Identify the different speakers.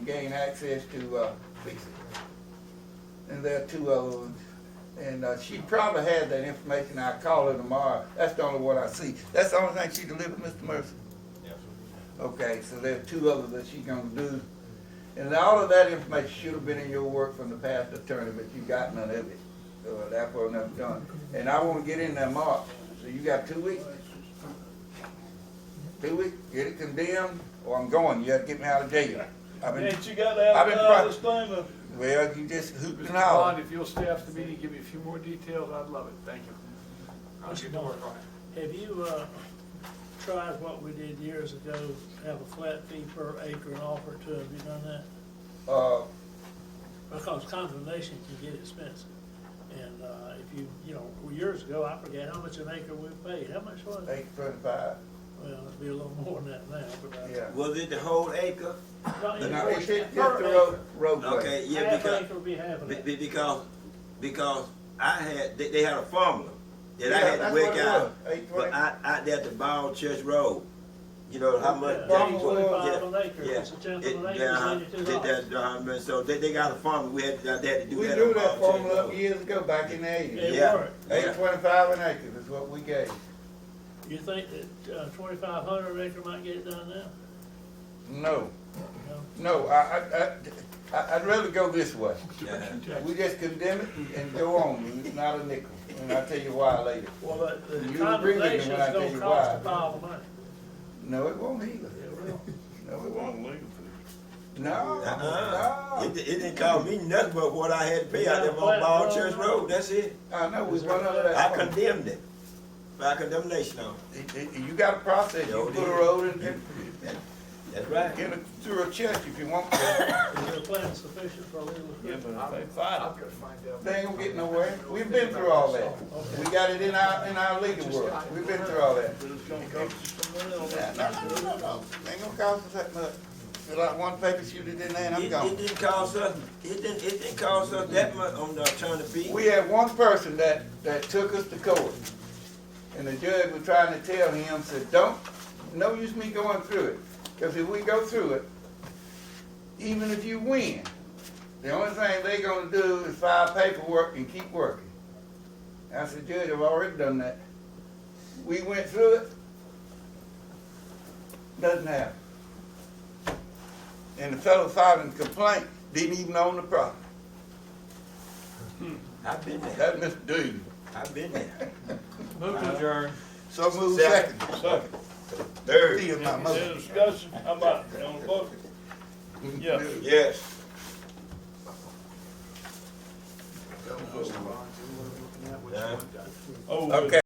Speaker 1: gain access to uh, fix it. And there are two other ones. And uh, she probably had that information. I'll call her tomorrow. That's the only one I see. That's the only thing she delivered, Mr. Mercer?
Speaker 2: Yes,
Speaker 1: Okay, so there are two others that she gonna do. And all of that information should have been in your work from the past attorney, but you got none of it. So therefore, nothing done. And I wanna get in there March, so you got two weeks? Two weeks, get it condemned, or I'm going, you have to get me out of jail. I've been,
Speaker 3: Ain't you got to
Speaker 1: I've been
Speaker 3: advertise this thing, uh,
Speaker 1: well, you just hooped
Speaker 4: Mr.
Speaker 1: and hollered.
Speaker 4: Bond, if you'll stay after the meeting, give me a few more details, I'd love it, thank you. I'll get to work on it.
Speaker 5: Have you, uh, tried what we did years ago, have a flat fee per acre and offer to, have you done that?
Speaker 1: Uh,
Speaker 5: Because condemnation can get expensive. And, uh, if you, you know, years ago, I forget how much an acre we paid, how much was it?
Speaker 1: eight twenty-five,
Speaker 5: Well, it'd be a little more than that now, but. uh,
Speaker 1: yeah.
Speaker 2: Was it the whole acre?
Speaker 5: no, it
Speaker 1: Now,
Speaker 5: was
Speaker 1: it's just the
Speaker 5: per acre.
Speaker 1: road, roadway.
Speaker 2: Okay, yeah,
Speaker 5: Half
Speaker 2: because,
Speaker 5: acre would be half an
Speaker 2: be-
Speaker 5: acre.
Speaker 2: be- because, because I had, they, they had a formula that I
Speaker 1: Yeah,
Speaker 2: had
Speaker 1: that's
Speaker 2: to
Speaker 1: what
Speaker 2: work
Speaker 1: it
Speaker 2: out.
Speaker 1: was, eight
Speaker 2: But
Speaker 1: twenty.
Speaker 2: out, out there at the Ball Church Road, you know, how much.
Speaker 5: Yeah,
Speaker 2: that-
Speaker 1: eight
Speaker 5: twenty-five an acre,
Speaker 2: yeah,
Speaker 5: it's a tenth of
Speaker 2: it-
Speaker 5: an acre,
Speaker 2: yeah, uh-huh,
Speaker 5: it's eighty-two
Speaker 2: that-
Speaker 5: dollars.
Speaker 2: that, uh, So they, they got a formula, we had, to- they had to do
Speaker 1: We
Speaker 2: that on
Speaker 1: drew that
Speaker 2: Ball Church
Speaker 1: formula up
Speaker 2: Road.
Speaker 1: years ago, back in the eighties.
Speaker 5: It
Speaker 2: Yeah,
Speaker 5: worked.
Speaker 1: Eight
Speaker 2: yeah.
Speaker 1: twenty-five an acre is what we gave.
Speaker 5: You think that, uh, twenty-five hundred acre might get it done now?
Speaker 1: No,
Speaker 5: No?
Speaker 1: no, I, I, I, I- I'd rather go this way.
Speaker 2: Yeah.
Speaker 1: We just condemn it and- and go on, it's not a nickel, and I'll tell you why later.
Speaker 5: Well, but the
Speaker 1: You agree with me
Speaker 5: condemnation's
Speaker 1: when I tell
Speaker 5: gonna
Speaker 1: you
Speaker 5: cost a
Speaker 1: why.
Speaker 5: pile of money.
Speaker 1: No, it won't either,
Speaker 5: It will.
Speaker 1: no, it won't. No,
Speaker 2: Uh-uh. It,
Speaker 1: no,
Speaker 2: di- it didn't cost me nothing but what I had to pay out there on Ball Church Road, that's it.
Speaker 1: I know, we run under
Speaker 2: I
Speaker 1: that. one.
Speaker 2: condemned it, by condemnation on it.
Speaker 1: It- it- You got a process,
Speaker 2: Yeah,
Speaker 1: you
Speaker 2: we
Speaker 1: put a
Speaker 2: did.
Speaker 1: road in, in,
Speaker 2: That's right.
Speaker 1: in a- through a church if you want to.
Speaker 5: Is your plan sufficient for a legal?
Speaker 4: I'll- I'll go find out.
Speaker 1: They ain't gonna get nowhere, we've been through all that. We got it in our, in our legal world, we've been through all that. Yeah, No, no, no, no, no, ain't gonna cost us that much. Fill out one paper, shoot it in there, and I'm
Speaker 2: It, it
Speaker 1: gone.
Speaker 2: didn't cost us, it didn't, it didn't cost us that much on the attorney fee.
Speaker 1: We had one person that, that took us to court, and the judge was trying to tell him, said, don't, no use me going through it, because if we go through it, even if you win, the only thing they gonna do is file paperwork and keep working. I said, Judge, I've already done that. We went through it, doesn't happen. And the fellow filed a complaint, didn't even own the property.
Speaker 2: I've been there,
Speaker 1: That Mr. Dean.
Speaker 2: I've been there.
Speaker 3: move to adjourn.
Speaker 1: So move
Speaker 2: Second.
Speaker 1: second.
Speaker 3: Second,
Speaker 2: Third,
Speaker 1: Still not
Speaker 3: is there
Speaker 1: motion.
Speaker 3: discussion, how about, it? on the vote? Yeah.
Speaker 2: yes.
Speaker 4: Mr. Bond, do you wanna look at what you
Speaker 2: Yeah.
Speaker 4: want done?
Speaker 3: Oh,
Speaker 1: Okay.